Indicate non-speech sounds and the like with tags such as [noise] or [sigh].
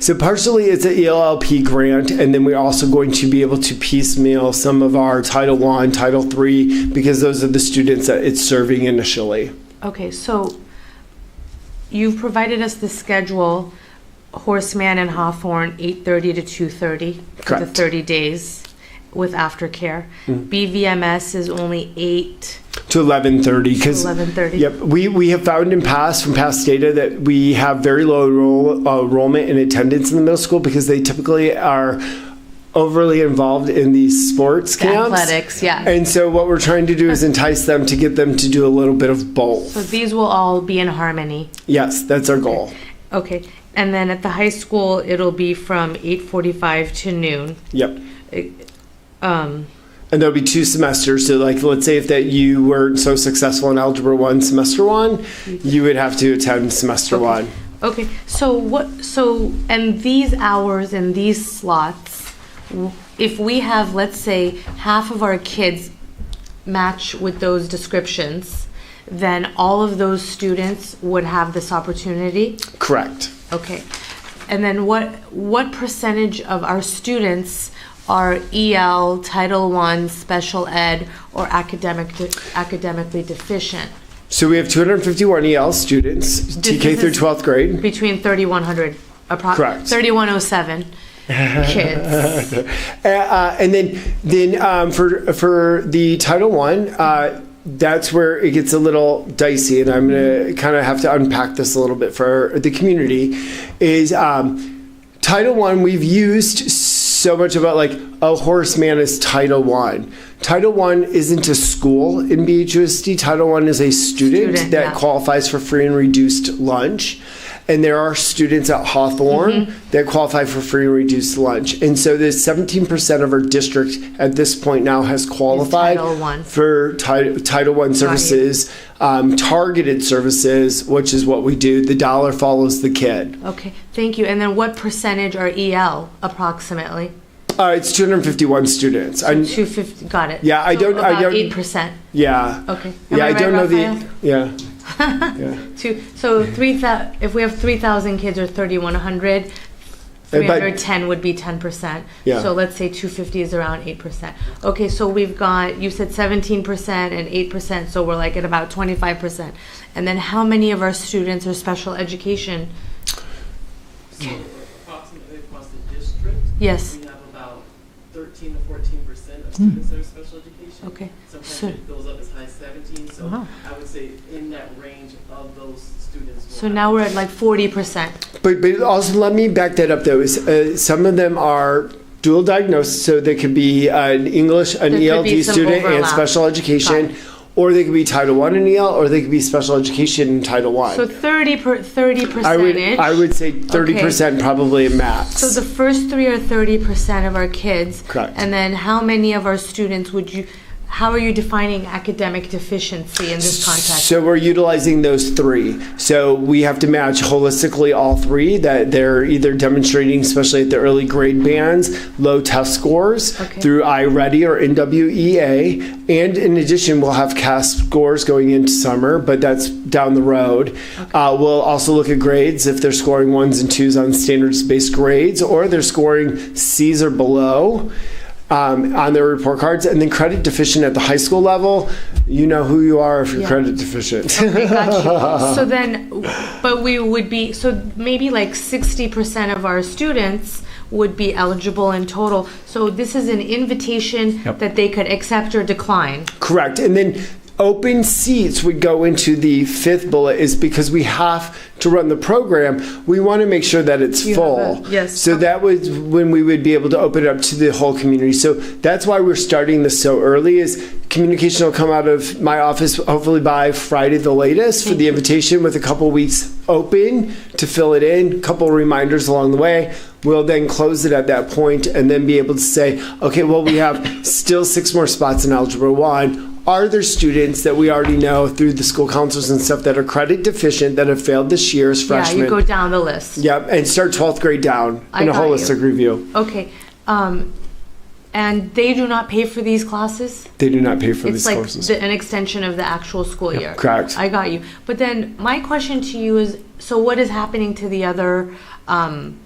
So partially it's E an ELLP grant, and then we're also going to be able to piecemeal some of our Title One, Title Three, because those are the students that it's serving initially. Okay, so you've provided us the schedule, Horseman and Hawthorne, 8:30 to 2:30 for the Correct. 30 days with aftercare. BVMS is only 8 to 11:30 because 11:30. Yep, we we have found in past from past data that we have very low enroll, uh, enrollment and attendance in the middle school because they typically are overly involved in these sports camps. athletics, yeah. And so what we're trying to do is entice them to get them to do a little bit of both. So these will all be in harmony. Yes, that's our goal. Okay, and then at the high school, it'll be from 8:45 to noon. Yep. Um, And there'll be two semesters. So, like, let's say if that you weren't so successful in Algebra 1 semester 1, you would have to attend semester 1. Mm-hmm. Okay, so what, so, and these hours and these slots, w- if we have, let's say, half of our kids match with those descriptions, then all of those students would have this opportunity? Correct. Okay. And then what, what percentage of our students are EL, Title I, special ed, or academic, de- academically deficient? So we have 251 EL E students, TK is- through 12th grade. Between 3,100, approximately, Correct. 3,107 [laughs] kids. Uh, uh, and then, then um, for for the Title One, uh, that's where it gets a little dicey, and I'm gonna kind of have to unpack this a little bit for the community. Is um, Title One we've used so much about like a horseman is Title One. Title One isn't a school in BHUSD. Title One is a student, Student, that yeah. qualifies for free and reduced lunch. And there are students at Hawthorne Mm-hmm. that qualify for free and reduced lunch. And so there's 17% of our district at this point now has qualified Title I. for ti- Title One services, um, targeted services, which is what we do. The dollar follows the kid. Okay, thank you. And then what percentage are EL approximately? Uh, it's 251 students. I, Two fifty, got it. Yeah, I So don't- I About don't- eight percent, yeah. okay. Am Yeah, I, right, don't know Raphael? the. Yeah. [laughs] yeah. Two, so three thou, if we have three thousand kids or thirty-one hundred, Uh, But- three hundred ten would be ten percent. Yeah. So let's say two fifty is around eight percent. Okay, so we've got, you said seventeen percent and eight percent, so we're like at about twenty-five percent. And then how many of our students are special education? approximately across the district. Yes. Hmm. We have about thirteen to fourteen percent of students that are special education. Okay, Sometimes so- Uh-huh. it goes up as high as seventeen, so Wow. I would say in that range of those students. will So have- now we're at like forty percent. But, but also let me back that up though. Is uh, some of them are dual diagnosed, so they could be an English, an There could be ELD some student, and overlap. special Got education, it. or they could be Title One and EL, or they could be special education and Title One. So thirty per, thirty percentage. I would I would say thirty percent probably max. So the first three are thirty percent of our kids. Correct. And then how many of our students would you, how are you defining academic deficiency in this context? So we're utilizing those three. So we have to match holistically all three that they're either demonstrating, especially at the early grade bands, low test scores Okay. through iReady or NWEA. And in addition, we'll have CAST scores going into summer, but that's down the road. Uh, we'll also look at grades if they're scoring ones and twos on standards based grades or they're scoring C's or below um, on their report cards, and then credit deficient at the high school level, you know who you are if you're Yeah. credit deficient. I got you. So then, but we would be, so maybe like sixty percent of our students would be eligible in total. So this is an invitation that they could accept or decline. [laughs] Correct. And then open seats would go into the fifth bullet is because we have to run the program. We want to make sure that it's You have full. a- yes. So that was when we would be able to open it up to the whole community. So that's why we're starting this so early is communication will come out of my office hopefully by Friday the latest for the Mm-hmm. invitation with a couple weeks open to fill it in, couple reminders along the way. We'll then close it at that point and then be able to say, okay, well, we have still six more spots in Algebra 1 are there students that we already know through the school counselors and stuff that are credit deficient that have failed this year as Yeah, freshmen? you go down the list. Yep, and start 12th grade down I in a got you. holistic review. Okay, um, and they do not pay for these classes? They do not pay for It's these like courses. the, an extension of the actual school year. correct. I got you. But then my question to you is, so what is happening to the other um,